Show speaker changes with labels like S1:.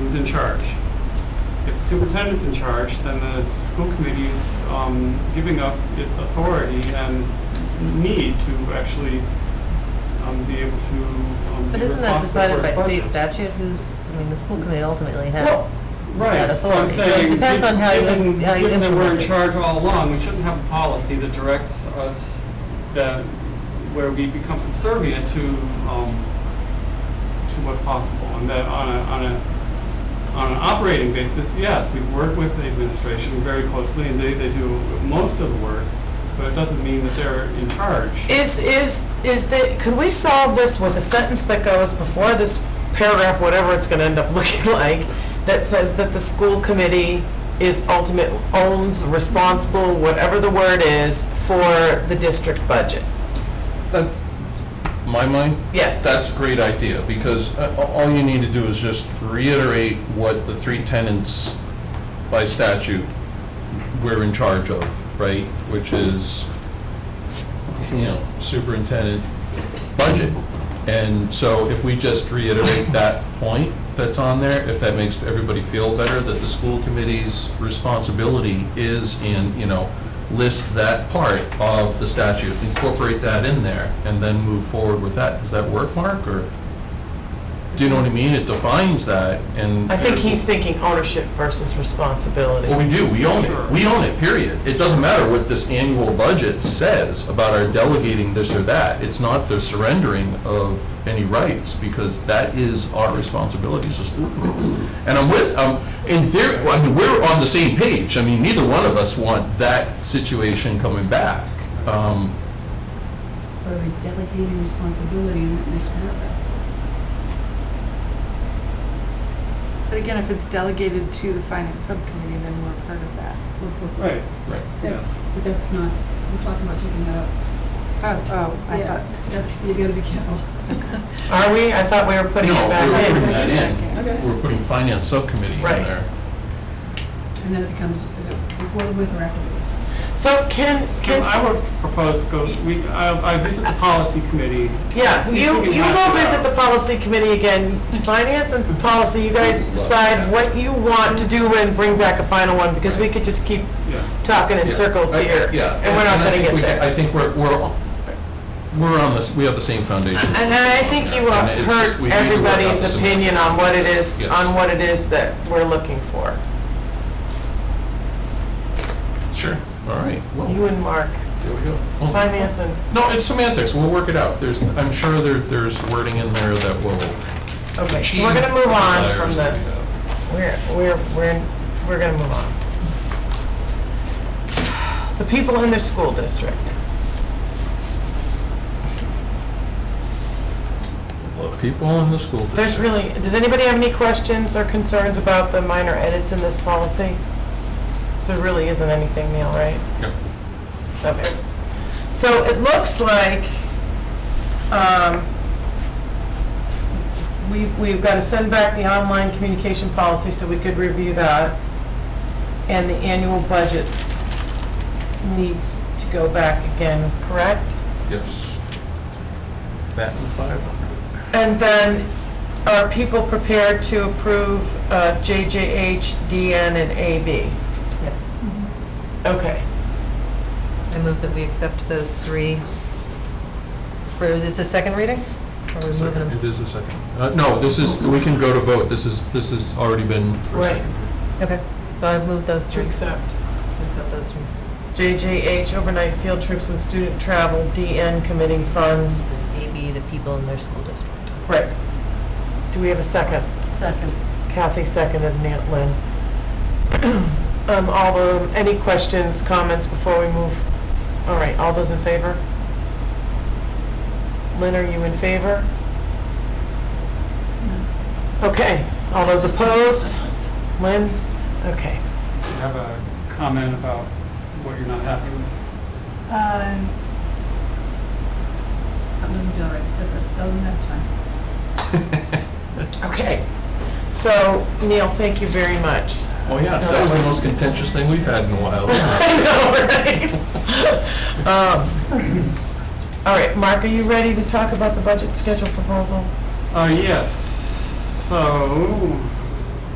S1: is in charge. If the superintendent's in charge, then the school committee's um, giving up its authority and its need to actually um, be able to um,
S2: But
S1: be
S2: isn't
S1: responsible
S2: that
S1: for
S2: decided by
S1: its budget.
S2: state statute? Who's, I mean, the school committee ultimately has, that
S1: Right, so I'm
S2: authority. So it
S1: saying,
S2: depends on how you-
S1: given,
S2: how you
S1: given that we're in
S2: implement it.
S1: charge all along, we shouldn't have a policy that directs us, that, where we become subservient to, um, to what's possible, and that on a, on a, on an operating basis, yes, we work with the administration very closely, and they, they do most of the work, but it doesn't mean that they're in charge.
S3: Is, is, is the, could we solve this with a sentence that goes before this paragraph, whatever it's gonna end up looking like, that says that the school committee is ultimate, owns, responsible, whatever the word is, for the district budget?
S4: That, my mind,
S3: Yes.
S4: that's a great idea, because uh, all you need to do is just reiterate what the three tenants by statute we're in charge of, right? Which is, you know, superintendent, budget. And so if we just reiterate that point that's on there, if that makes everybody feel better, that the school committee's responsibility is in, you know, list that part of the statute, incorporate that in there, and then move forward with that. Does that work, Mark, or? Do you know what I mean? It defines that and.
S3: I think he's thinking ownership versus responsibility.
S4: Well, we do, we own
S1: Sure.
S4: it, we own it, period. It doesn't matter what this annual budget says about our delegating this or that. It's not the surrendering of any rights, because that is our responsibility as a school committee. And I'm with, um, in theory, I mean, we're on the same page, I mean, neither one of us want that situation coming back. Um,
S5: Or we delegating responsibility in that next paragraph.
S6: But again, if it's delegated to the finance subcommittee, then we're part of that.
S1: Right,
S4: Right.
S5: That's, but that's not, we're talking about taking that out.
S6: Oh, oh, I
S5: Yeah,
S6: thought.
S5: That's, you gotta be careful.
S3: Are we? I thought we were putting
S4: No,
S3: it
S4: we're
S3: back
S4: putting
S3: in.
S4: that
S5: Okay.
S4: in, we're putting finance subcommittee in
S3: Right.
S4: there.
S5: And then it becomes, is it before the with or after the with?
S3: So can,
S1: Well, I
S3: can,
S1: would propose, go, we, I, I visit the policy committee.
S3: yeah,
S1: see if
S3: you,
S1: we can
S3: you
S1: hash
S3: go
S1: it out.
S3: visit the policy committee again, finance and policy, you guys decide what you want to do and bring back a final one, because we could just keep
S1: Yeah.
S3: talking in
S4: Yeah.
S3: circles
S4: I-
S3: here.
S4: Yeah.
S3: And we're not
S4: I
S3: gonna
S4: think
S3: get
S4: we- I
S3: there.
S4: think we're, we're, all- we're on this, we have the same foundation.
S3: And I think you
S4: And
S3: have
S4: it's just- we
S3: heard
S4: need to work out
S3: everybody's
S4: the
S3: opinion on what it is,
S4: Yes.
S3: on what it is that we're looking for.
S4: Sure, all right, well,
S3: You and Mark,
S4: there we go. Well,
S3: finance and,
S4: No, it's semantics, we'll work it out. There's, I'm sure there, there's wording in there that will,
S3: okay, so
S4: Achieve
S3: we're gonna move on from
S4: desires that we
S3: this. We're, we're, we're, we're gonna move on. The people in the school district.
S4: look, people in the school district.
S3: There's really, does anybody have any questions or concerns about the minor edits in this policy? So there really isn't anything, Neil, right?
S4: Yep.
S3: Okay. So it looks like, um, we, we've got to send back the online communication policy so we could review that. And the annual budgets needs to go back again, correct?
S4: Yes. That and five hundred.
S3: And then, are people prepared to approve uh, JJH, DN, and AB?
S2: yes.
S3: Okay.
S2: I move that we accept those three. For, is this the second reading? Or Are we moving them?
S4: It is a second. Uh, no, this is, we can go to vote, this is, this has already been for a
S3: Right.
S4: second.
S2: Okay, so I've moved those
S3: To
S2: three.
S3: accept.
S2: Accept those three.
S3: JJH, overnight field trips and student travel, DN, committing funds.
S2: Maybe the people in their school district.
S3: Right. Do we have a second?
S5: Second.
S3: Kathy seconded, Nan- Lynn. Um, All the, any questions, comments before we move? All right, all those in favor? Lynn, are you in favor? Okay, all those opposed? Lynn? Okay.
S1: You have a comment about what you're not happy with?
S5: Um, Something doesn't feel right, but but other than that, it's fine.
S3: Okay. So, Neil, thank you very much.
S4: Oh, yeah, that was the most contentious thing we've had in a while.
S3: I know, right? Um, All right, Mark, are you ready to talk about the budget schedule proposal?
S1: Uh, yes, Uh, so,